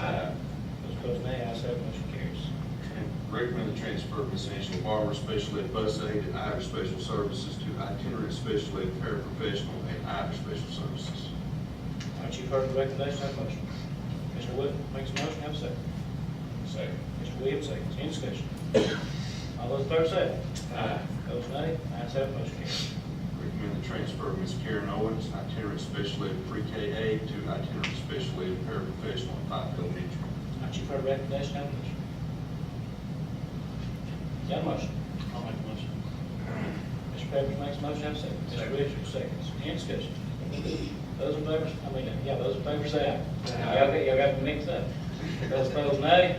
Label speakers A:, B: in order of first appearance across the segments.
A: Aye.
B: Those opposed, nay. Ayes have, it, motion carries.
A: Recommend the transfer of Miss Angela Barber, special ed bus aide and Ivy Special Services to itinerant special ed paraprofessional and Ivy Special Services.
B: All right, you've heard the recommendation, have a motion. Mr. Wood makes a motion, have a second.
C: Second.
B: Mr. Williams seconds, any discussion? All those in favor say aye. Aye. Those nay. Ayes have, it, motion carries.
A: Recommend the transfer of Miss Karen Owens, itinerant special ed pre-K aide to itinerant special ed paraprofessional at Pike Elementary.
B: All right, you've heard the recommendation, have a motion. Got a motion? I'll make a motion. Mr. Pepperidge makes a motion, have a second. Mr. Williams seconds, any discussion? Those in favor, I mean, yeah, those in favor say aye.
C: Aye.
B: Y'all got, y'all got me mixed up. Those opposed, nay.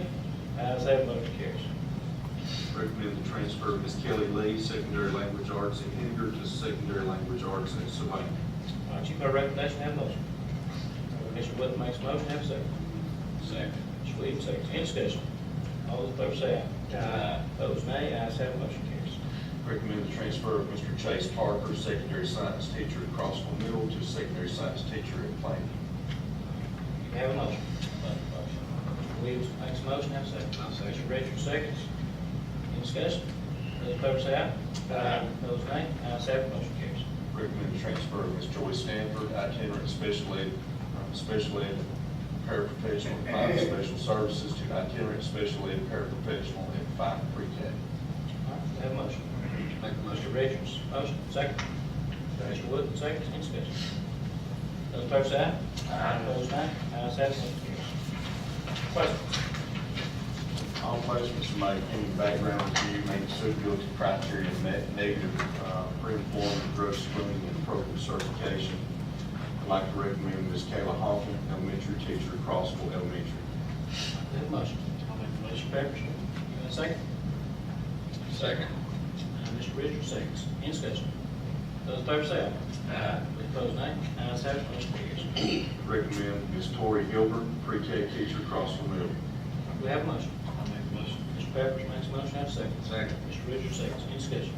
B: Ayes have, it, motion carries.
A: Recommend the transfer of Miss Kelly Lee, secondary language arts at Henninger to secondary language arts at Savannah.
B: All right, you've heard the recommendation, have a motion. Mr. Wood makes a motion, have a second.
C: Second.
B: Mr. Williams seconds, any discussion? All those in favor say aye.
C: Aye.
B: Opposed, nay, ayes have, it, motion carries.
A: Recommend the transfer of Mr. Chase Parker, secondary science teacher at Crossville Middle to secondary science teacher at Plainview.
B: You have a motion. Mr. Williams makes a motion, have a second. I'll second. Mr. Richards seconds. Any discussion? Those in favor say aye.
C: Aye.
B: Opposed, nay, ayes have, it, motion carries.
A: Recommend the transfer of Ms. Joy Stanford, itinerant special ed, from special ed paraprofessional at Five Special Services to itinerant special ed paraprofessional at Five Pre-K.
B: All right, we have a motion. Make a motion. Mr. Richards, motion, second. Mr. Wood, second, any discussion? Those in favor say aye. Aye. Opposed, nay, ayes have, it, motion carries. Questions?
A: All placements from my any background review made suitability criteria met negative uh, pre-employment, drug screening, and appropriate certification. I'd like to recommend Ms. Kayla Hoffman, elementary teacher at Crossville Elementary.
B: We have a motion. I'll make the motion. Pepperidge, you got a second?
C: Second.
B: Uh, Mr. Richards, seconds. Any discussion? Those in favor say aye. Aye. Opposed, nay. Ayes have, it, motion carries.
A: Recommend Ms. Tori Gilbert, pre-K teacher at Crossville Middle.
B: We have a motion.
C: I'll make the motion.
B: Mr. Pepperidge makes a motion, have a second.
C: Second.
B: Mr. Richards, seconds. Any discussion?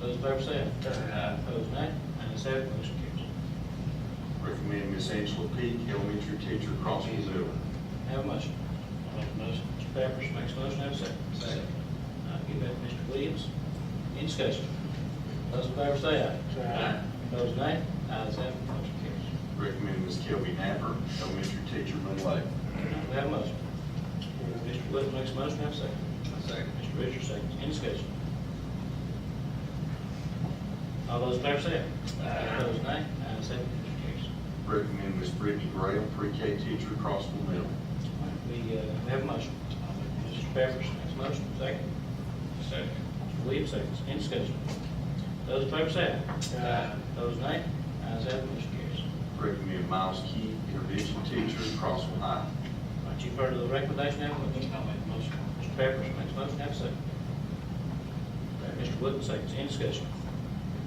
B: Those in favor say aye.
C: Aye.
B: Opposed, nay. Ayes have, it, motion carries.
A: Recommend Ms. Angela Peak, elementary teacher at Crossville Middle.
B: Have a motion. I'll make the motion. Mr. Pepperidge makes a motion, have a second.
C: Second.
B: I'll give that to Mr. Williams. Any discussion? Those in favor say aye.
C: Aye.
B: Opposed, nay. Ayes have, it, motion carries.
A: Recommend Ms. Kelby Napper, elementary teacher at Middle Lake.
B: We have a motion. Mr. Wood makes a motion, have a second.
C: Second.
B: Mr. Richards seconds, any discussion? All those in favor say aye.
C: Aye.
B: Opposed, nay. Ayes have, it, motion carries.
A: Recommend Ms. Brittany Graham, pre-K teacher at Crossville Middle.
B: All right, We, uh, we have a motion. Mr. Pepperidge makes a motion, second.
C: Second.
B: Mr. Williams seconds, any discussion? Those in favor say aye.
C: Aye.
B: Those nay. Ayes have, it, motion carries.
A: Recommend Miles Key, intervention teacher at Crossville High.
B: All right, you've heard the recommendation, have a motion.
C: I'll make the motion.
B: Mr. Pepperidge makes a motion, have a second. Mr. Wood seconds, any discussion?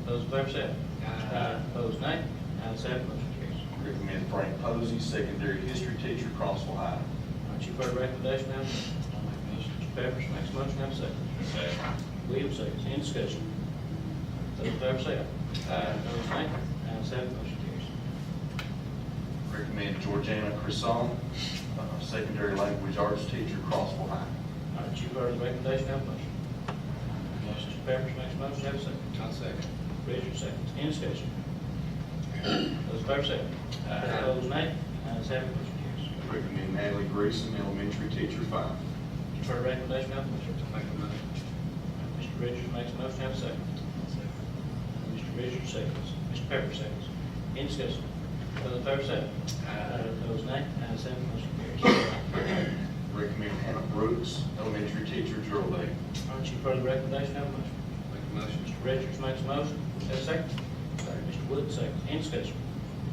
B: Those in favor say aye.
C: Aye.
B: Opposed, nay. Ayes have, it, motion carries.
A: Recommend Frank Posey, secondary history teacher at Crossville High.
B: All right, you've heard the recommendation, have a motion.
C: I'll make the motion.
B: Mr. Pepperidge makes a motion, have a second.
C: Second.
B: Williams seconds, any discussion? Those in favor say aye.
C: Aye.
B: Those nay, ayes have, it, motion carries.
A: Recommend Georgiana Crisson, uh, secondary language arts teacher at Crossville High.
B: All right, you've heard the recommendation, have a motion.
C: Motion.
B: Mr. Pepperidge makes a motion, have a second.
C: I'll second.
B: Richard seconds, any discussion? Those in favor say aye.
C: Aye.
B: Those nay, ayes have, it, motion carries.
A: Recommend Natalie Greason, elementary teacher at five.
B: You've heard the recommendation, have a motion.
C: Make the motion.
B: Mr. Richards makes a motion, have a second. Mr. Richards seconds, Mr. Pepper seconds. Any discussion? Those in favor say aye. Those nay, ayes have, it, motion carries.
A: Recommend Hannah Brooks, elementary teacher at Gerald Lake.
B: Aren't you for the recommendation, have a motion?
C: Make the motion.
B: Mr. Richards makes a motion, is there a second? Second. Mr. Wood, second, any discussion?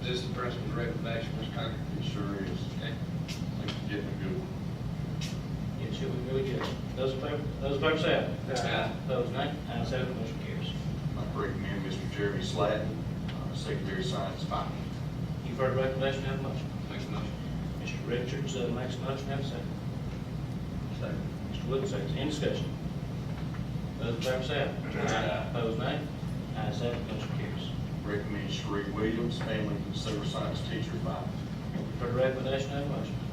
C: This is the principal's recommendation, Mr. Conger.
A: It sure is.
C: Okay.
A: Thanks for getting a good one.
B: Yes, sir, we really did. Those in favor, those in favor say aye.
C: Aye.
B: Those nay, ayes have, it, motion carries.
A: I recommend Mr. Jeremy Slatton, uh, secondary science five.
B: You've heard the recommendation, have a motion.
C: Make the motion.
B: Mr. Richards uh, makes a motion, have a second.
C: Second.
B: Mr. Wood, second, any discussion? Those in favor say aye.
C: Aye.
B: Those nay, ayes have, it, motion carries.
A: Recommend Sheree Williams, family and consumer science teacher at five.
B: You've heard the recommendation, have a motion.